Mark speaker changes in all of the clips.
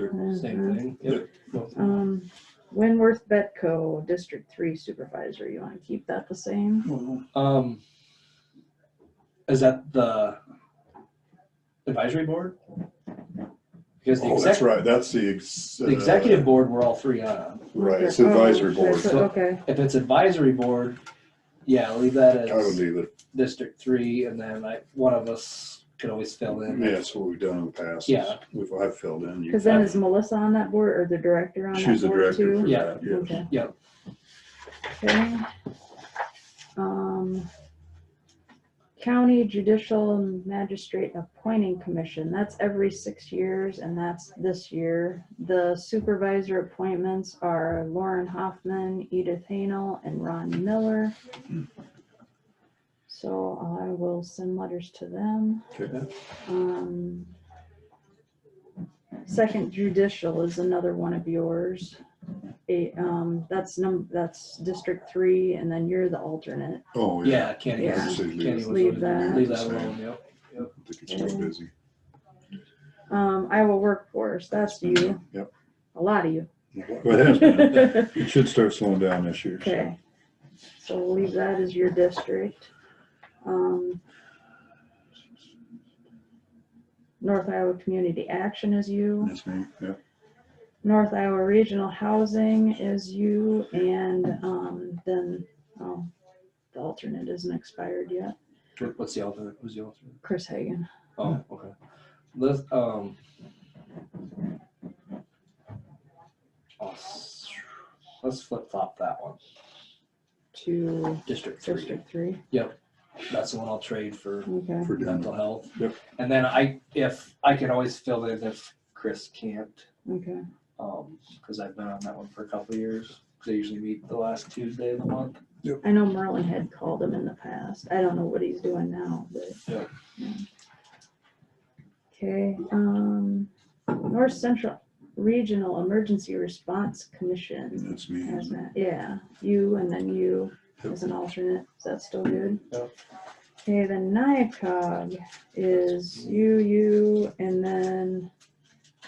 Speaker 1: Sure,
Speaker 2: Mhm.
Speaker 1: Same thing. Yep. Nope.
Speaker 2: Um, Winworth Betco, District Three Supervisor, you wanna keep that the same?
Speaker 1: Um, is that the advisory board? Because the
Speaker 3: Oh, that's
Speaker 1: exec,
Speaker 3: right, that's the ex.
Speaker 1: the executive
Speaker 3: uh,
Speaker 1: board, we're all three on.
Speaker 3: Right, it's
Speaker 2: Oh,
Speaker 3: advisory board.
Speaker 2: that's- Okay,
Speaker 1: If it's advisory board, yeah, leave that
Speaker 3: I would
Speaker 1: as
Speaker 3: leave it,
Speaker 1: District Three, and then I, one of us could always fill in.
Speaker 3: yeah, that's what we've done in the past.
Speaker 1: Yeah.
Speaker 3: We've, I've filled in, you
Speaker 2: cause then is Melissa on that board or the director on that
Speaker 3: choose the
Speaker 2: board
Speaker 3: director for
Speaker 2: too?
Speaker 1: Yeah.
Speaker 3: that, yes.
Speaker 2: Okay.
Speaker 1: Yep.
Speaker 2: Okay. Um, County Judicial Magistrate Appointing Commission, that's every six years and that's this year. The supervisor appointments are Lauren Hoffman, Edith Hanel, and Ron Miller. So I will send letters to them.
Speaker 3: Okay.
Speaker 2: Um, Second judicial is another one of yours. A, um, that's num, that's District Three, and then you're the alternate.
Speaker 3: Oh, yeah.
Speaker 1: Yeah, Kenny,
Speaker 2: Yeah.
Speaker 1: was- Kenny was,
Speaker 2: Leave that.
Speaker 1: leave that alone, yep.
Speaker 3: I think it's too busy.
Speaker 2: Um, Iowa Workforce, that's you.
Speaker 3: Yep.
Speaker 2: A lot of you.
Speaker 3: But it has been- it should start slowing down this year. so.
Speaker 2: Okay. So we'll leave that as your district. Um, North Iowa Community Action is you.
Speaker 3: That's me, yeah.
Speaker 2: North Iowa Regional Housing is you, and um, then, oh, the alternate isn't expired yet,
Speaker 1: What- What's the alternate, who's the alternate?
Speaker 2: Chris Hagan.
Speaker 1: Oh, okay. Let's, um. I'll s- oh, Let's flip flop that one.
Speaker 2: to
Speaker 1: District three.
Speaker 2: District Three,
Speaker 1: That's the one I'll trade for
Speaker 2: okay.
Speaker 3: For
Speaker 1: mental
Speaker 3: done.
Speaker 1: health.
Speaker 3: Yep.
Speaker 1: And then I, if, I can always fill in if Chris can't,
Speaker 2: Okay,
Speaker 1: um, cause I've been on that one for a couple of years. They usually meet the last Tuesday of the month.
Speaker 2: I know Merlin had called him in the past, I don't know what he's doing now, but.
Speaker 1: Yeah.
Speaker 2: yeah. Okay, um, North Central Regional Emergency Response Commission,
Speaker 3: That's me.
Speaker 2: has that, yeah, you and then you as an alternate, is that still good?
Speaker 1: Yep.
Speaker 2: Okay, the NICOG is you, you, and then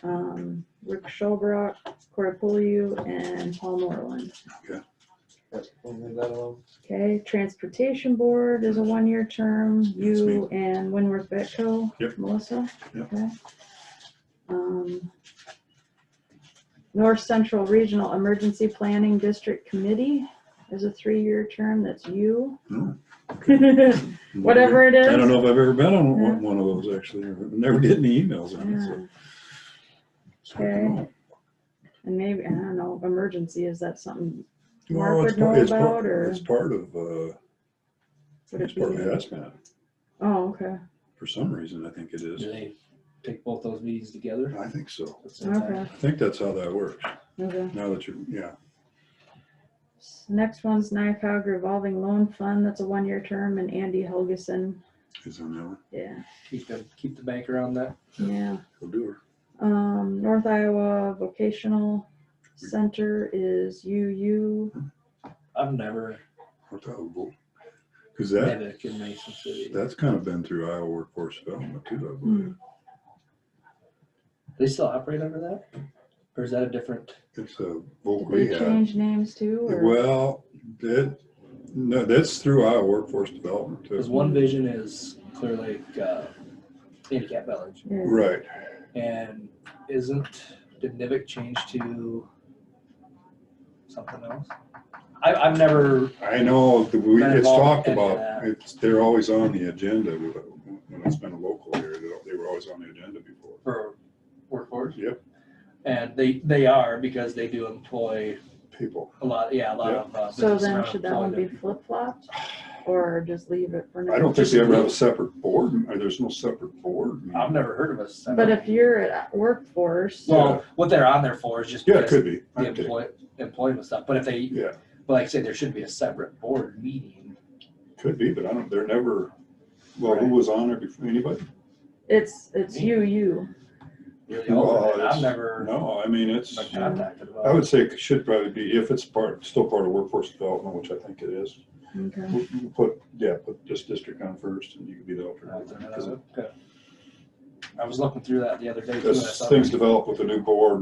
Speaker 2: um, Rick Schulbrock, Cortopouliou, and Paul Moreland.
Speaker 1: Yep, we'll leave that alone.
Speaker 2: Okay, Transportation Board is a one-year term,
Speaker 3: That's me.
Speaker 2: you and Winworth Betco.
Speaker 3: Yep.
Speaker 2: Melissa.
Speaker 3: Yep.
Speaker 2: Okay. Um, North Central Regional Emergency Planning District Committee is a three-year term, that's you.
Speaker 3: Oh,
Speaker 2: Whatever it
Speaker 3: I don't
Speaker 2: is.
Speaker 3: know if I've ever been on
Speaker 2: Yeah.
Speaker 3: one- one of those, actually. I Never get any emails on it,
Speaker 2: Yeah.
Speaker 3: so. so I don't know.
Speaker 2: And maybe, I don't know, emergency, is that something, Mark
Speaker 3: Well, it's
Speaker 2: would know
Speaker 3: part- it's part-
Speaker 2: about, or-
Speaker 3: It's part of, uh,
Speaker 2: would
Speaker 3: it's
Speaker 2: it be?
Speaker 3: part of hazmat.
Speaker 2: Oh, okay,
Speaker 3: For some reason, I think it
Speaker 1: Do
Speaker 3: is.
Speaker 1: they pick both those meetings together?
Speaker 3: I think so.
Speaker 1: That's the time.
Speaker 2: okay,
Speaker 3: I think that's how that works.
Speaker 2: okay.
Speaker 3: Now that you, yeah,
Speaker 2: Next one's NICOG revolving loan fund, that's a one-year term, and Andy Helgeson,
Speaker 3: is on that one.
Speaker 2: yeah,
Speaker 1: Keep the, keep the bank around that.
Speaker 2: yeah.
Speaker 3: We'll do her.
Speaker 2: Um, North Iowa Vocational Center is UU,
Speaker 1: I've never,
Speaker 3: What the hell, bull? Cause that,
Speaker 1: never in Mason City.
Speaker 3: that's kind of been through Iowa workforce development too, I
Speaker 2: Hmm.
Speaker 3: believe.
Speaker 1: They still operate under that? Or is that a different?
Speaker 3: It's a
Speaker 2: Did
Speaker 3: voc
Speaker 2: they
Speaker 3: rehab.
Speaker 2: change names too, or?
Speaker 3: Well, that, no, that's through Iowa workforce development
Speaker 1: Because
Speaker 3: too.
Speaker 1: one vision is Clear Lake uh, Handicap Village.
Speaker 2: Yeah.
Speaker 3: Right.
Speaker 1: And isn't, did Nivik change to something else? I, I've never,
Speaker 3: I know, that we,
Speaker 1: Been
Speaker 3: it's
Speaker 1: involved
Speaker 3: talked
Speaker 1: in any of
Speaker 3: about,
Speaker 1: that.
Speaker 3: it's, they're always on the agenda. When it's been a local here, they- they were always on the agenda before.
Speaker 1: for workforce.
Speaker 3: Yep.
Speaker 1: And they, they are because they do employ
Speaker 3: People,
Speaker 1: a lot, yeah, a lot of. uh,
Speaker 2: So
Speaker 1: businesses
Speaker 2: then
Speaker 1: around
Speaker 2: should that one be
Speaker 1: Florida.
Speaker 2: flip-flopped, or just leave it for now?
Speaker 3: I don't think they ever have a separate board, or there's no separate board.
Speaker 1: I've never heard of us.
Speaker 2: But if you're at workforce,
Speaker 1: Well, what they're on there for is just.
Speaker 3: Yeah, it
Speaker 1: because
Speaker 3: could be.
Speaker 1: The
Speaker 3: I'd take it.
Speaker 1: employ, employment stuff, but if they,
Speaker 3: Yeah,
Speaker 1: but like I said, there should be a separate board meeting.
Speaker 3: could be, but I don't, they're never, well, who
Speaker 1: Right.
Speaker 3: was on there before, anybody?
Speaker 2: it's, it's UU,
Speaker 1: You're the
Speaker 3: Well,
Speaker 1: alternate. I've
Speaker 3: it's-
Speaker 1: never
Speaker 3: No, I mean, it's,
Speaker 1: been contacted about.
Speaker 3: I would say it should probably be, if it's part, still part of workforce development, which I think it is,
Speaker 2: okay,
Speaker 3: we- we put, yeah, put this district on first and you could be the alternate.
Speaker 1: alternate.
Speaker 3: 'Cause
Speaker 1: Okay. I was looking through that the other day. too, and I
Speaker 3: As
Speaker 1: saw
Speaker 3: things
Speaker 1: that.
Speaker 3: develop with the new board